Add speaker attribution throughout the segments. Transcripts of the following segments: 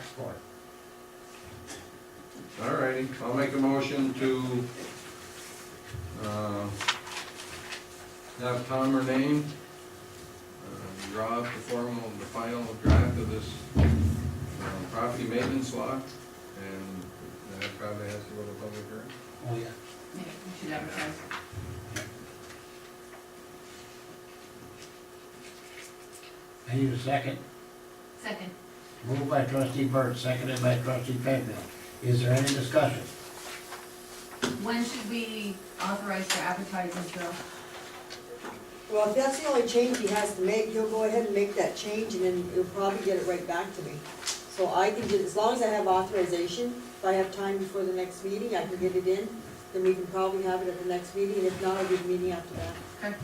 Speaker 1: Excellent.
Speaker 2: All righty, I'll make a motion to, uh, have Tom Renane uh, draw up the formal, the final draft of this um, property maintenance law, and uh, that probably has to go to public hearing.
Speaker 1: Oh, yeah.
Speaker 3: Yeah, we should advertise.
Speaker 1: I need a second.
Speaker 3: Second.
Speaker 1: Moved by trustee Burt, seconded by trustee Penfield. Is there any discussion?
Speaker 3: When should we authorize for advertising, Phil?
Speaker 4: Well, if that's the only change he has to make, he'll go ahead and make that change, and then he'll probably get it right back to me. So I can get, as long as I have authorization, if I have time before the next meeting, I can get it in, then we can probably have it at the next meeting, and if not, I'll do the meeting after that.
Speaker 3: Okay.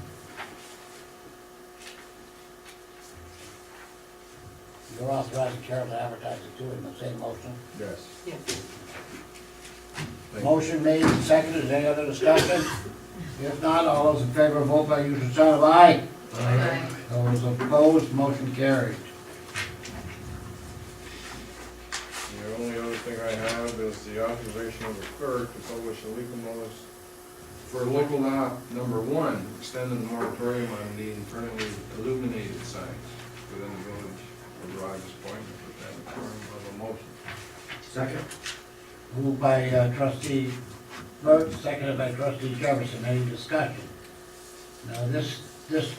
Speaker 1: You're authorizing chair to advertise it too in the same motion.
Speaker 2: Yes.
Speaker 4: Yeah.
Speaker 2: Thank you.
Speaker 1: Motion made and seconded. Is there Any other discussion? If not, all those in favor, vote by usual sign of aye.
Speaker 3: Aye.
Speaker 1: Those opposed, motion carried.
Speaker 2: The only other thing I have is the authorization of the clerk to publish a legal notice for local law number one, extending the moratorium on the internally illuminated signs within the village of Rogers Point, and put that in form of a motion.
Speaker 1: Second. Moved by uh, trustee Burt, seconded by trustee Jefferson. Any discussion? Now, this, this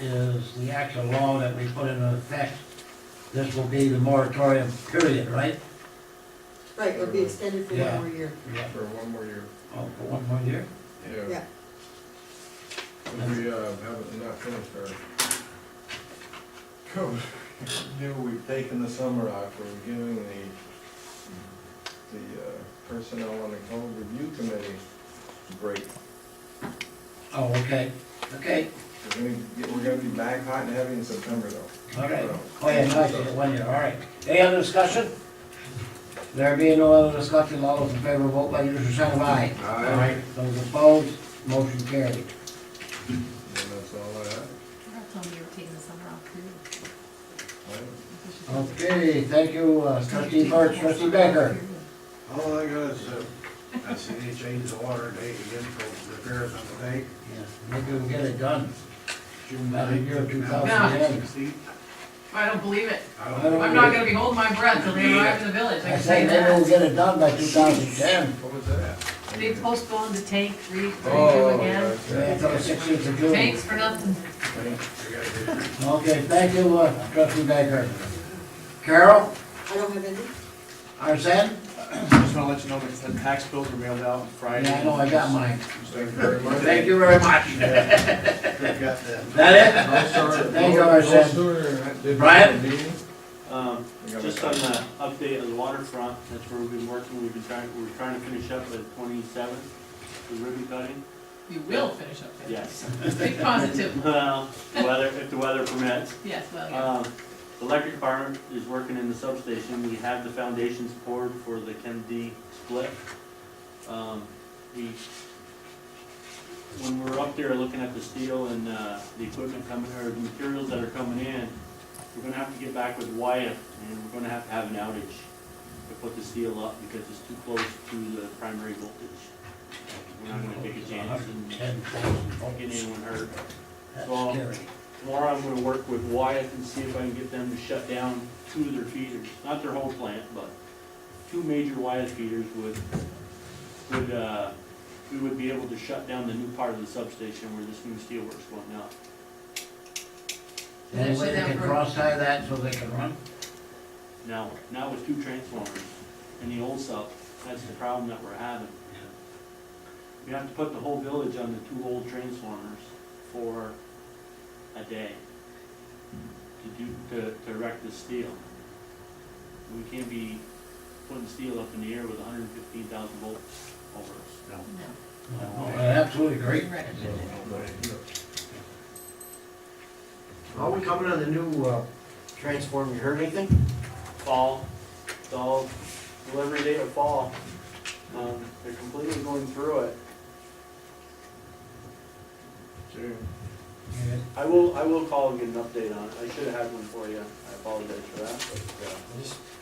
Speaker 1: is the actual law that we put into effect. This will be the moratorium period, right?
Speaker 4: Right, it'll be extended for one
Speaker 1: Yeah.
Speaker 4: more year.
Speaker 1: Yeah.
Speaker 2: For one more year.
Speaker 1: Oh, for one more year?
Speaker 4: Yeah.
Speaker 2: If we, uh, haven't, not finished our. code, Deal we've taken the summer off, we're giving the, the uh, personnel on the code review committee a break.
Speaker 1: Oh, okay, okay,
Speaker 2: We're gonna, get- we're gonna be back hot and heavy in September though.
Speaker 1: all right. Oh, yeah, nice, yeah, one year, all right. Any other discussion? There being no other discussion, all those in favor, vote by usual sign of aye.
Speaker 2: Aye.
Speaker 1: All right, Those opposed, motion carried.
Speaker 2: And that's all I have.
Speaker 3: I told me you were taking the summer off too. We should-
Speaker 1: Okay, thank you, uh, trustee Burke, trustee Becker.
Speaker 5: All I got is, uh, I see they changed the water date again for repairs on the tank.
Speaker 1: Yes, Maybe we'll get it done.
Speaker 5: June
Speaker 1: About a year, 2010.
Speaker 5: 2016.
Speaker 3: I don't believe it.
Speaker 5: I don't
Speaker 1: I'm
Speaker 5: know.
Speaker 3: I'm not gonna be holding my breath till they arrive in the village, I
Speaker 1: I
Speaker 3: can
Speaker 1: say
Speaker 3: say
Speaker 1: maybe we'll
Speaker 3: that.
Speaker 1: get it done by two thousand ten.
Speaker 2: What was that?
Speaker 3: They postponed the tank three, thirty-two
Speaker 2: Oh,
Speaker 3: again.
Speaker 2: that's
Speaker 1: Yeah,
Speaker 2: right.
Speaker 1: until the sixteenth of June.
Speaker 3: Tanks for nothing.
Speaker 5: I gotta get it.
Speaker 1: Okay, thank you, uh, trustee Becker. Carol,
Speaker 4: I don't have any,
Speaker 1: Arsen?
Speaker 6: Just wanna let you know that the tax bills were mailed out on Friday.
Speaker 1: Yeah, I know, I got mine.
Speaker 2: Thank you very much.
Speaker 1: Thank you very much.
Speaker 5: I've got that.
Speaker 1: That
Speaker 2: I'll start-
Speaker 1: Thank you,
Speaker 2: I'll-
Speaker 1: Arsen.
Speaker 2: I'll start- did-
Speaker 1: Brian?
Speaker 7: Um,
Speaker 2: I got
Speaker 7: Just
Speaker 2: my-
Speaker 7: on the update on the waterfront, that's where we've been working, we've been trying, we're trying to finish up with twenty-seventh, the ribbon cutting.
Speaker 3: You will finish up there.
Speaker 7: Yes.
Speaker 3: Be positive.
Speaker 7: Well, the weather, if the weather permits.
Speaker 3: Yes, well, yeah.
Speaker 1: Uh,
Speaker 7: Um, the Electric department is working in the substation, we have the foundations poured for the Kennedy split. Um, We, when we're up there looking at the steel and, uh, the equipment coming, or the materials that are coming in, we're gonna have to get back with Wyatt, and we're gonna have to have an outage to put the steel up, because it's too close to the primary voltage. We're not gonna take a chance and get
Speaker 1: Ten thousand volts.
Speaker 7: anyone hurt.
Speaker 1: That's
Speaker 7: Well,
Speaker 1: scary.
Speaker 7: Tomorrow I'm gonna work with Wyatt and see if I can get them to shut down two of their feeders, not their whole plant, but two major Wyatt feeders would, would, uh, we would be able to shut down the new part of the substation where this new steelworks went up.
Speaker 1: And so they can
Speaker 3: Whatever.
Speaker 1: cross tie that so they can run?
Speaker 7: Now, now with two transformers in the old sub, that's the problem that we're having. We have to put the whole village on the two old transformers for a day to do, to, to wreck the steel. We can't be putting steel up in the air with hundred and fifteen thousand volts over us.
Speaker 3: No,
Speaker 1: Oh, I Absolutely agree.
Speaker 3: you're right.
Speaker 5: Are we coming on the new, uh, transform, you heard anything?
Speaker 7: Fall, it's all delivery date of fall. Um, they're completely going through it.
Speaker 2: June.
Speaker 1: Yeah.
Speaker 7: I will, I will call and get an update on it. I should have had one for you. I apologize for that, but, uh,
Speaker 5: I just